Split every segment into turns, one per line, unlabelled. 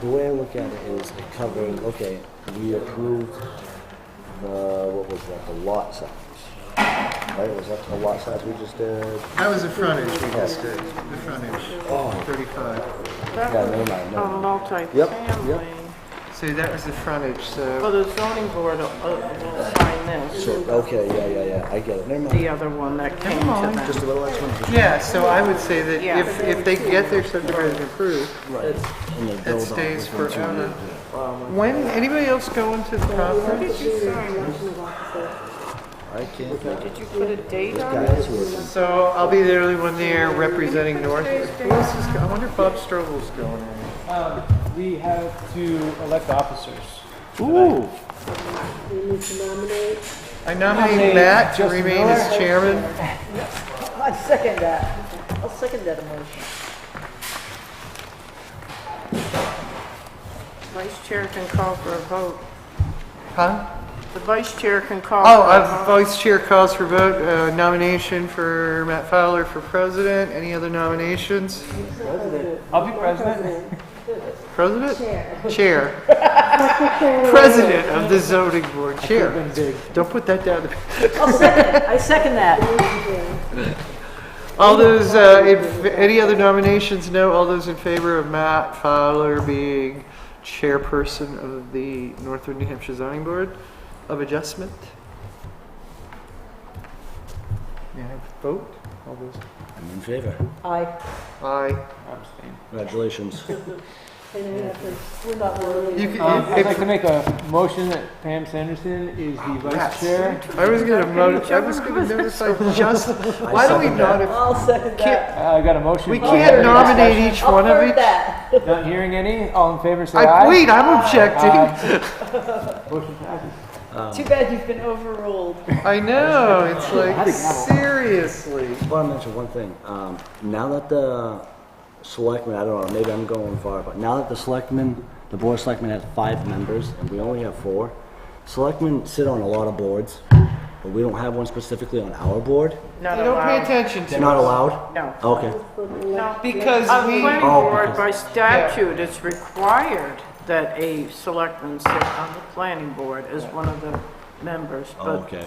the way I look at it is it covering, okay, we approved the, what was that, the lot size? Right, was that the lot size we just did?
That was the frontage we just did, the frontage, 35.
That
Yeah,
was
never mind, never
on
Yep,
multifamily.
So that was the frontage,
Well,
so
the zoning board will, uh, will sign this,
So, okay, yeah, yeah, yeah, I get it, never mind.
the other one that came
mind.
to
Just
them.
a little extra. just-
yeah, so I would say that
Yeah.
if if they get their subdivision approved,
Right. And then build on
it stays
within two years,
forever.
yeah.
When anybody else go into the property?
I can't make it.
Did you put a date on it?
Guys, we're-
So I'll be the only one there representing North. Who else is? go- I wonder if Bob Strobel's going. in.
Um, we have to elect officers.
Ooh. I nominate Matt to
Justin
remain as
Miller.
chairman.
I second that. I'll second that emotion.
Vice chair can call for a vote.
Huh?
The vice chair can call
Oh,
for a
uh,
vote.
vice chair calls for vote, uh, nomination for Matt Fowler for president. Any other nominations?
I'll be president.
President? Chair. President of the zoning board, chair.
Been big.
Don't put that down.
I'll second, I second that.
All those, uh, if, any other nominations? No, all those in favor of Matt Fowler being chairperson of the Northern New Hampshire zoning board of adjustment? May I have a vote? All those,
I'm in favor.
Aye.
aye.
Abstain.
Congratulations.
We're not worried.
You can-
Um,
if-
I'd like to make a motion that Pam Sanderson is the vice chair.
I was gonna notice. I was gonna notice. I just. Why do we
second that.
not?
I'll second that.
Uh, I got a motion.
We
All
can't
in favor?
nominate each
I'll
one of
third
each.
that.
Not hearing any, all in favor, say
I,
aye.
wait, I'm objecting.
Motion passes.
Too bad you've been overruled.
I know. It's like
think that will-
seriously.
I want to mention one thing. Um, now that the selectmen, I don't know, maybe I'm going far, but now that the selectmen, the board of selectmen has five members and we only have four, selectmen sit on a lot of boards, but we don't have one specifically on our board.
Not
They don't pay
allowed.
attention
It's
to
not allowed?
No.
Okay.
No.
because
A
we.
planning
Oh,
board,
because-
by statute, it's required that a selectman sit on the planning board as one of the members, but
Oh, Okay.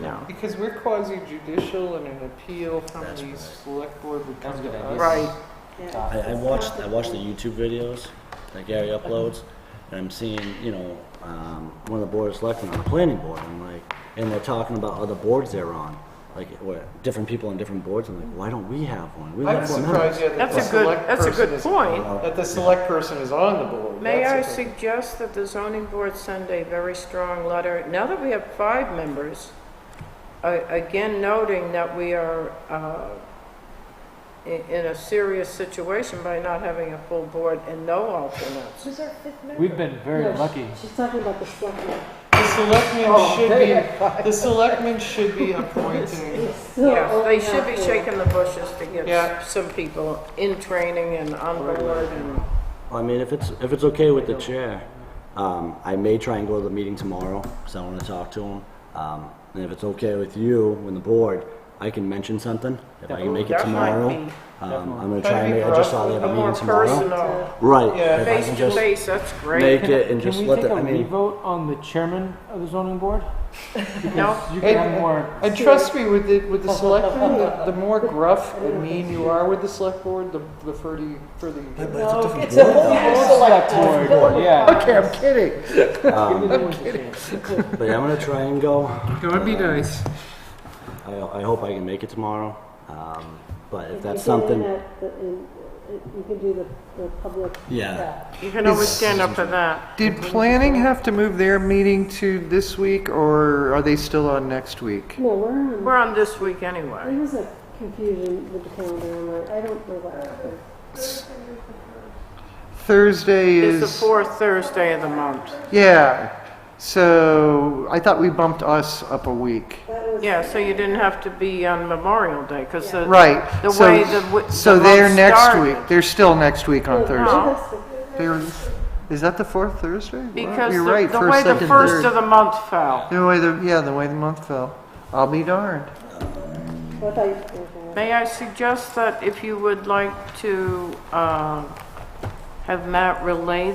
no.
Because we're quasi judicial and an appeal from the select board would come to us.
Right,
I, I watched, I watched the YouTube videos that Gary uploads and I'm seeing, you know, um, one of the board of selectmen on the planning board. I'm like, and they're talking about other boards they're on, like where different people on different boards. I'm like, why don't we have one? We
I'm
have four members.
surprised yet that the
that's a good,
select
that's a
person
good
is-
point.
That the select person is on the board.
May I
That's a-
suggest that the zoning board send a very strong letter, now that we have five members, a- again noting that we are uh, i- in a serious situation by not having a full board and no alternates.
Who's our fifth member?
We've been very lucky.
She's talking about the selectmen.
The
Oh,
selectmen should be. The selectmen should be appointing.
oh,
Yeah, they should be shaking the bushes to
Yeah.
get some people in training and on board and,
I mean, if it's, if it's okay with the chair, um, I may try and go to the meeting tomorrow, because I want to talk to him. Um, and if it's okay with you and the board, I can mention something, if I can make it
That might
tomorrow.
be-
Um, I'm gonna
That'd
try and
be
make, I just saw they
rough.
have
a
a
more
meeting tomorrow.
personal,
Right,
Yeah.
if I
face
can
to
just
face, that's great.
make it and just
Can we
let
take
the,
a
I mean,
re-vote on the chairman of the zoning board?
No.
Because you
And-
can have more,
And trust me, with the, with the selectmen, the, the more gruff and mean you are with the select board, the, the further you, further you get.
No, it's a whole new
select
select board.
board, yeah.
Okay, I'm kidding.
Um, but yeah, I'm gonna try and go.
It would be nice.
I, I hope I can make it tomorrow. Um, but if that's something,
You can do the, the public.
yeah,
You can always stand up for that.
Did planning have to move their meeting to this week, or are they still on next week?
No, we're
um,
on,
We're on this week anyway.
there was a confusion with the calendar, I'm like, I don't know what happened.
Thursday
It's the
is,
fourth Thursday of the month.
yeah, so I thought we bumped us up a week.
Yeah, so you didn't have to be on Memorial Day, because the...
Right.
The
so-
way the w- the
So they're
month
next
started. Oh.
week, they're still next week on Thursday.
No,
They're- Is that the fourth Thursday? Wow,
because
You're right,
the the
first,
way the
second,
first
third.
of the month fell.
The way the, yeah, the way the month fell. I'll be darned.
So I thought you were going
May I suggest that if you would like to uh, have Matt relay